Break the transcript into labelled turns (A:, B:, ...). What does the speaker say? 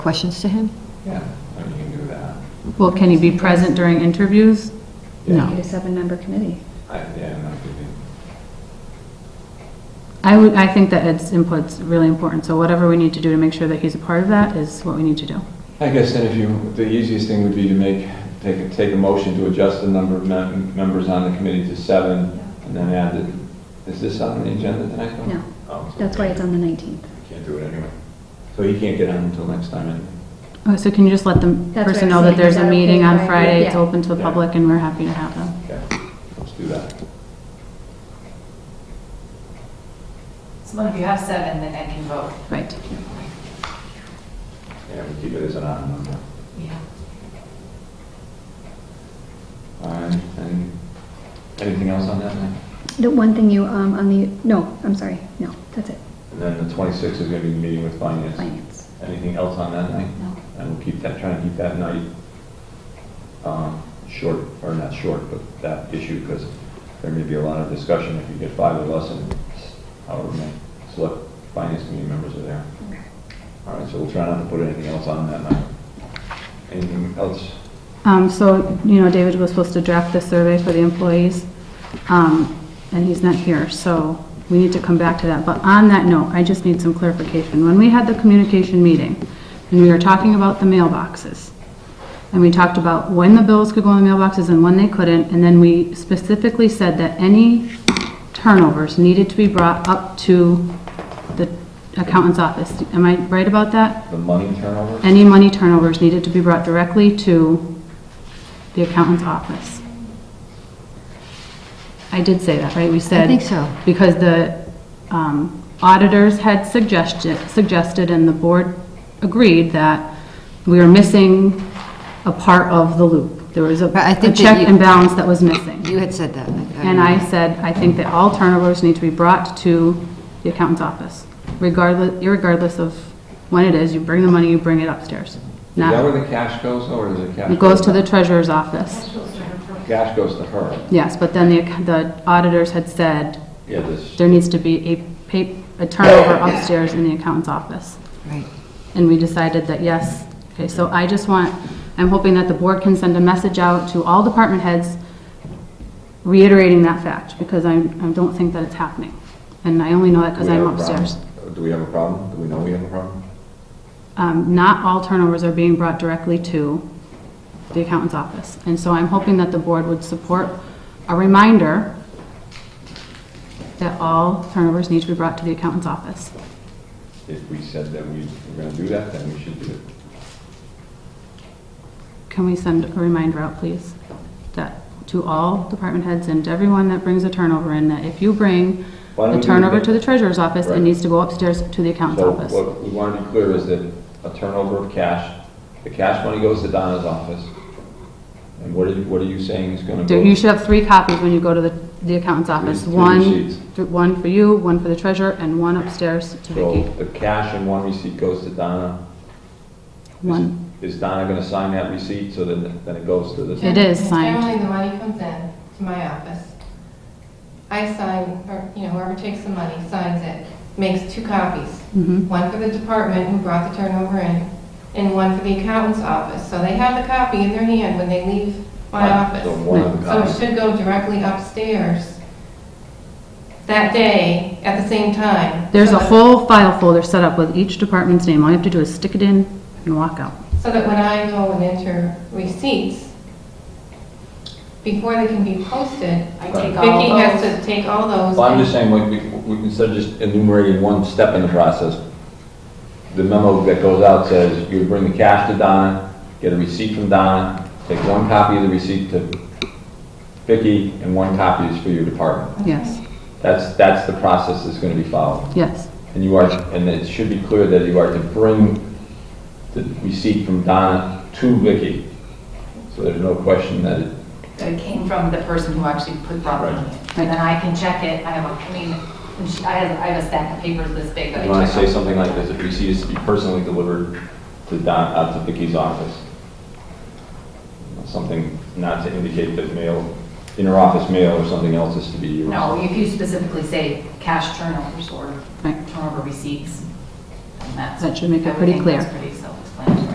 A: questions to him?
B: Yeah, I mean, Oh, you can do that.
C: Well, can he be present during interviews?
D: You
C: No.
D: just have a member committee.
B: I, yeah, I'm not giving.
C: I would, I think that Ed's input's really important, so whatever we need to do to make sure that he's a part of that is what we need to do.
B: I guess then if you, the easiest thing would be to make, take, a- take a motion to adjust the number of mem- members on the committee to seven, and then add the, is this on the agenda tonight? though?
D: No.
B: Oh, so
D: That's why it's on the 19th.
B: Can't do it anyway. So he can't get on until next time anyway.
C: Oh, So can you just let the
D: what
C: person
D: I'm
C: know that
D: saying,
C: there's
D: is
C: a
D: that okay,
C: meeting on
D: right?
C: Friday, it's
D: Yeah.
C: open to the
B: Yeah.
C: public, and we're happy to have them?
B: Okay, let's do that.
E: So if you have seven, then I can vote.
C: Right.
B: Yeah, we keep it as an odd number.
E: Yeah.
B: All right, and anything else on that night?
D: The one thing you, um, on the, no, I'm sorry, no, that's it,
B: And then the 26th is going to be the meeting with finance.
D: finance.
B: Anything else on that night?
E: No.
B: And we'll keep that, try and keep that night um, short, or not short, but that issue, because there may be a lot of discussion if you get five of us and however many select finance committee members are there.
D: Okay.
B: All right, so we'll try not to put anything else on that night. Anything else?
C: Um, so, you know, David was supposed to draft the survey for the employees, um, and he's not here, so we need to come back to that. But on that note, I just need some clarification. When we had the communication meeting, and we were talking about the mailboxes, and we talked about when the bills could go in the mailboxes and when they couldn't, and then we specifically said that any turnovers needed to be brought up to the accountant's office. Am I right about that?
B: The money turnover?
C: Any money turnovers needed to be brought directly to the accountant's office. I did say that, right? We said.
A: think so.
C: Because the um, auditors had suggested, suggested, and the board agreed that we were missing a part of the loop. There was a
A: But I
C: a
A: think that
C: check
A: you-
C: and balance that was missing.
A: You had said that.
C: And I said, I think that all turnovers need to be brought to the accountant's office, regardless, irregardless of when it is, you bring the money, you bring it upstairs.
B: Is that
C: Not,
B: where the cash goes, or does it cash?
C: it goes
B: go-
C: to the treasurer's office,
B: Cash goes to her.
C: yes, but then the, ac- the auditors had said,
B: Yeah, this,
C: there needs to be a pa, a turnover upstairs in the accountant's office.
A: Right.
C: And we decided that yes. Okay, so I just want, I'm hoping that the board can send a message out to all department heads reiterating that fact, because I, I don't think that it's happening. And I only know that because
B: Do we
C: I'm
B: have a problem?
C: upstairs.
B: Do we have a problem? Do we know we have a problem?
C: Um, not all turnovers are being brought directly to the accountant's office. And so I'm hoping that the board would support a reminder that all turnovers need to be brought to the accountant's office.
B: If we said that we were going to do that, then we should do it.
C: Can we send a reminder out, please? That to all department heads and to everyone that brings a turnover in, that if you bring
B: Why don't
C: a
B: we do
C: turnover
B: that?
C: to the treasurer's office, it
B: Right.
C: needs to go upstairs to the accountant's
B: So
C: office.
B: what we want to be clear is that a turnover of cash, the cash money goes to Donna's office. And what are you, what are you saying is going to
C: There-
B: go?
C: You should have three copies when you go to the, the accountant's office.
B: three
C: One,
B: receipts.
C: th- one for you, one for the treasurer, and one upstairs to
B: So
C: Vicki.
B: the cash in one receipt goes to Donna. Is it-
C: One.
B: Is Donna going to sign that receipt so then, then it goes to the?
C: It is signed.
F: Generally, the money comes in to my office. I sign, or, you know, whoever takes the money signs it, makes two copies.
C: Mhm.
F: One for the department who brought the turnover in, and one for the accountant's office. So they have the copy in their hand when they leave my
B: Right,
F: office. Oh,
B: So one of the
F: So it
B: copies.
F: should go directly upstairs that day at the same time.
C: There's
F: So
C: a
F: that-
C: whole file folder set up with each department's name. All you have to do is stick it in and walk out.
F: So that when I go and enter receipts, before they can be posted,
E: I
B: Right.
E: take
F: Vicki
E: all
F: has
E: those.
F: to take all those.
B: Well, I'm
F: and-
B: just saying, like, we, we, instead of just enumerating one step in the process, the memo that goes out says, you bring the cash to Donna, get a receipt from Donna, take one copy of the receipt to Vicki, and one copy is for your department.
C: Yes,
B: That's, that's the process that's gonna be followed.
C: yes.
B: And you are, and it should be clear that you are to bring the receipt from Donna to Vicki. So there's no question that it,
E: That came from the person who actually put brought the money in. And then I can check it, I have a, I mean, and she- I have, I have a stack of papers this big that I
B: you wanna
E: check.
B: say
E: off.
B: something like this, if receipt is to be personally delivered to Don, out to Vicky's office. Something not to indicate that mail, inter-office mail or something else is to be used.
E: No, if you specifically say cash turnovers or
C: Right.
E: turnover receipts, then that's.
C: That should make it
E: I would
C: pretty
E: think
C: clear.
E: that's